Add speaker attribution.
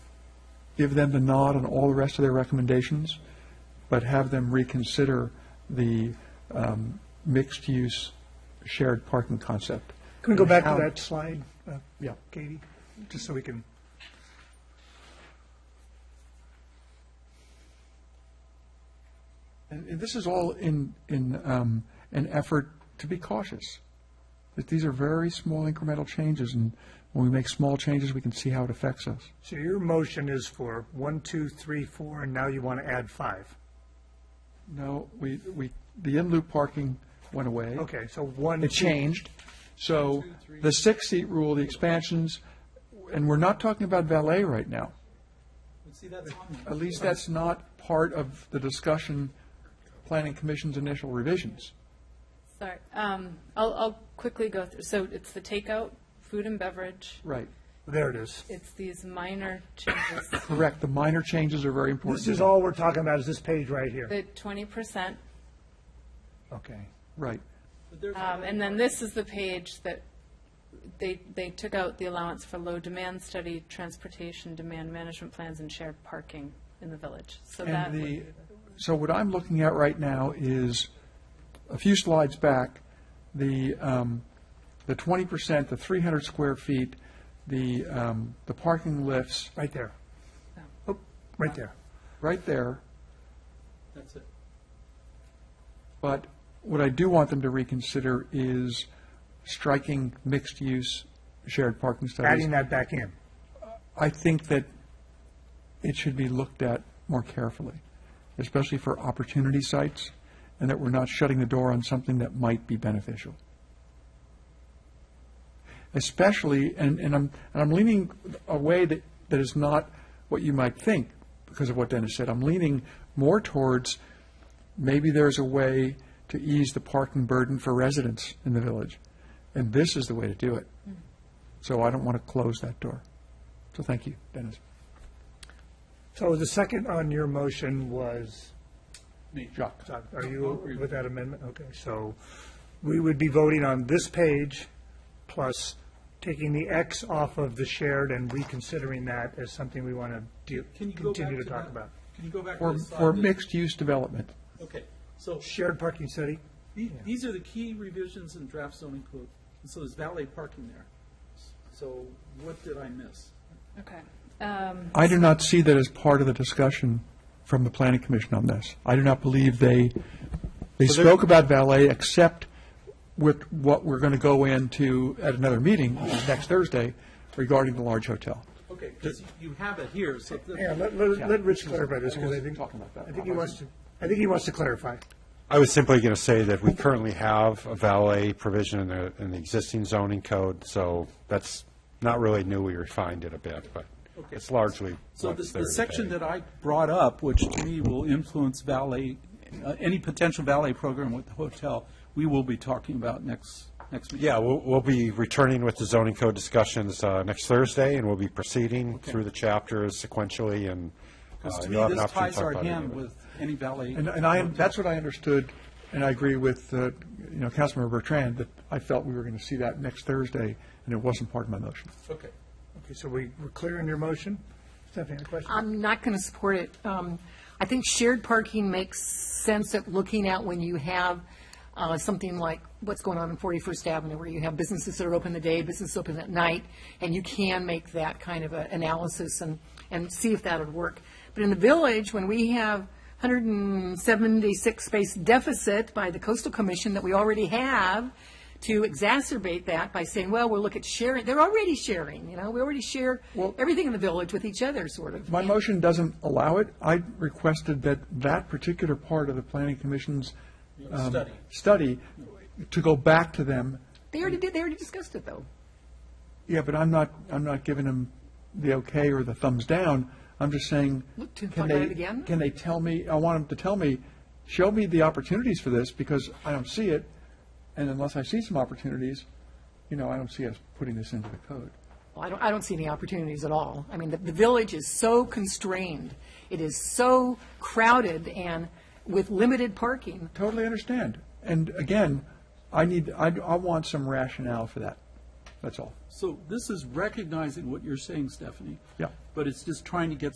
Speaker 1: give them the nod on all the rest of their recommendations, but have them reconsider the um, mixed-use shared parking concept.
Speaker 2: Can we go back to
Speaker 1: How-
Speaker 2: that slide, uh,
Speaker 1: Yeah.
Speaker 2: Katie, just so we can,
Speaker 1: And and this is all in, in um, an effort to be cautious. That these are very small incremental changes, and when we make small changes, we can see how it affects us.
Speaker 2: so your motion is for one, two, three, four, and now you want to add five.
Speaker 1: No, we, we, the in-loop parking went away.
Speaker 2: Okay, so one.
Speaker 1: It
Speaker 2: two-
Speaker 1: changed. So the six-seat rule, the expansions, and we're not talking about valet right now.
Speaker 3: But see, that's on there.
Speaker 1: At least that's not part of the discussion, Planning Commission's initial revisions.
Speaker 4: Sorry, um, I'll, I'll quickly go through, so it's the takeout, food and beverage,
Speaker 1: Right.
Speaker 2: There it is.
Speaker 4: it's these minor changes,
Speaker 1: Correct. The minor changes are very important.
Speaker 2: This is all we're talking about is this page right here.
Speaker 4: the twenty percent,
Speaker 2: Okay.
Speaker 1: Right.
Speaker 3: But there's
Speaker 4: um, and then this is the page that they, they took out the allowance for low demand study, transportation demand management plans, and shared parking in the village, so that,
Speaker 1: And the, so what I'm looking at right now is, a few slides back, the, um, the twenty percent, the three hundred square feet, the, um, the parking lifts,
Speaker 2: Right there. Oh, Right there.
Speaker 1: right there.
Speaker 3: That's it.
Speaker 1: But what I do want them to reconsider is striking mixed-use shared parking studies.
Speaker 2: Adding that back in.
Speaker 1: I think that it should be looked at more carefully, especially for opportunity sites, and that we're not shutting the door on something that might be beneficial. Especially, and, and I'm, and I'm leaning a way that, that is not what you might think because of what Dennis said. I'm leaning more towards maybe there's a way to ease the parking burden for residents in the village, and this is the way to do it. So I don't want to close that door. So thank you, Dennis.
Speaker 2: So the second on your motion was,
Speaker 3: Me.
Speaker 1: Jacques.
Speaker 2: so are you with that amendment? Okay, so we would be voting on this page plus taking the X off of the shared and reconsidering that as something we want to
Speaker 3: Can you go back
Speaker 2: continue to talk
Speaker 3: that?
Speaker 2: about.
Speaker 3: Can you go back to
Speaker 1: For,
Speaker 3: the
Speaker 1: for
Speaker 3: slide? that-
Speaker 1: mixed-use development.
Speaker 3: Okay, so
Speaker 2: Shared parking study?
Speaker 3: the- these are the key revisions in draft zoning code. And so there's valet parking there. So what did I miss?
Speaker 4: okay. Um,
Speaker 1: I do not see that as part of the discussion from the planning commission on this. I do not believe they, they spoke about valet except with what we're going to go into at another meeting, which is next Thursday, regarding the large hotel.
Speaker 3: Okay, because you have it here, so. the-
Speaker 2: Yeah, let, let, let Rich clarify this, because I
Speaker 1: wasn't
Speaker 2: think,
Speaker 1: talking about that.
Speaker 2: I think he wants to, I think he wants to clarify.
Speaker 5: I was simply going to say that we currently have a valet provision in the, in the existing zoning code, so that's not really new, we refined it a bit, but
Speaker 3: Okay.
Speaker 5: it's largely
Speaker 3: So
Speaker 5: what's
Speaker 3: the,
Speaker 5: there
Speaker 3: the section
Speaker 5: today.
Speaker 3: that I brought up, which to me will influence valet, uh, any potential valet program with the hotel, we will be talking about next, next meeting.
Speaker 5: Yeah, we'll, we'll be returning with the zoning code discussions uh, next Thursday, and we'll be proceeding through the chapters sequentially, and uh,
Speaker 3: Because to me,
Speaker 5: you'll have an
Speaker 3: this ties
Speaker 5: opportunity to talk
Speaker 3: our
Speaker 5: about it.
Speaker 3: hand with any valet.
Speaker 1: And, and I, that's what I understood, and I agree with, uh, you know, Councilmember Bertrand, that I felt we were going to see that next Thursday, and it wasn't part of my motion.
Speaker 3: Okay.
Speaker 2: Okay, so we, we're clear in your motion? Stephanie, any questions?
Speaker 6: I'm not going to support it. Um, I think shared parking makes sense at looking at when you have uh, something like what's going on in 41st Avenue, where you have businesses that are open the day, businesses open at night, and you can make that kind of a analysis and, and see if that would work. But in the village, when we have 176 space deficit by the coastal commission that we already have, to exacerbate that by saying, well, we'll look at sharing, they're already sharing, you know, we already share everything in the village with each other, sort of.
Speaker 1: My motion doesn't allow it. I requested that that particular part of the planning commission's. um,
Speaker 3: Study.
Speaker 1: Study, to go back to them.
Speaker 6: They already did, they already discussed it, though.
Speaker 1: Yeah, but I'm not, I'm not giving them the okay or the thumbs down. I'm just saying.
Speaker 6: Look to
Speaker 1: can
Speaker 6: find out
Speaker 1: they-
Speaker 6: again?
Speaker 1: Can they tell me, I want them to tell me, show me the opportunities for this because I don't see it. And unless I see some opportunities, you know, I don't see us putting this into the code.
Speaker 6: Well, I don't, I don't see any opportunities at all. I mean, the, the village is so constrained, it is so crowded and with limited parking.
Speaker 1: Totally understand. And again, I need, I, I want some rationale for that. That's all.
Speaker 3: So this is recognizing what you're saying, Stephanie.
Speaker 1: Yeah.
Speaker 3: But it's just trying to get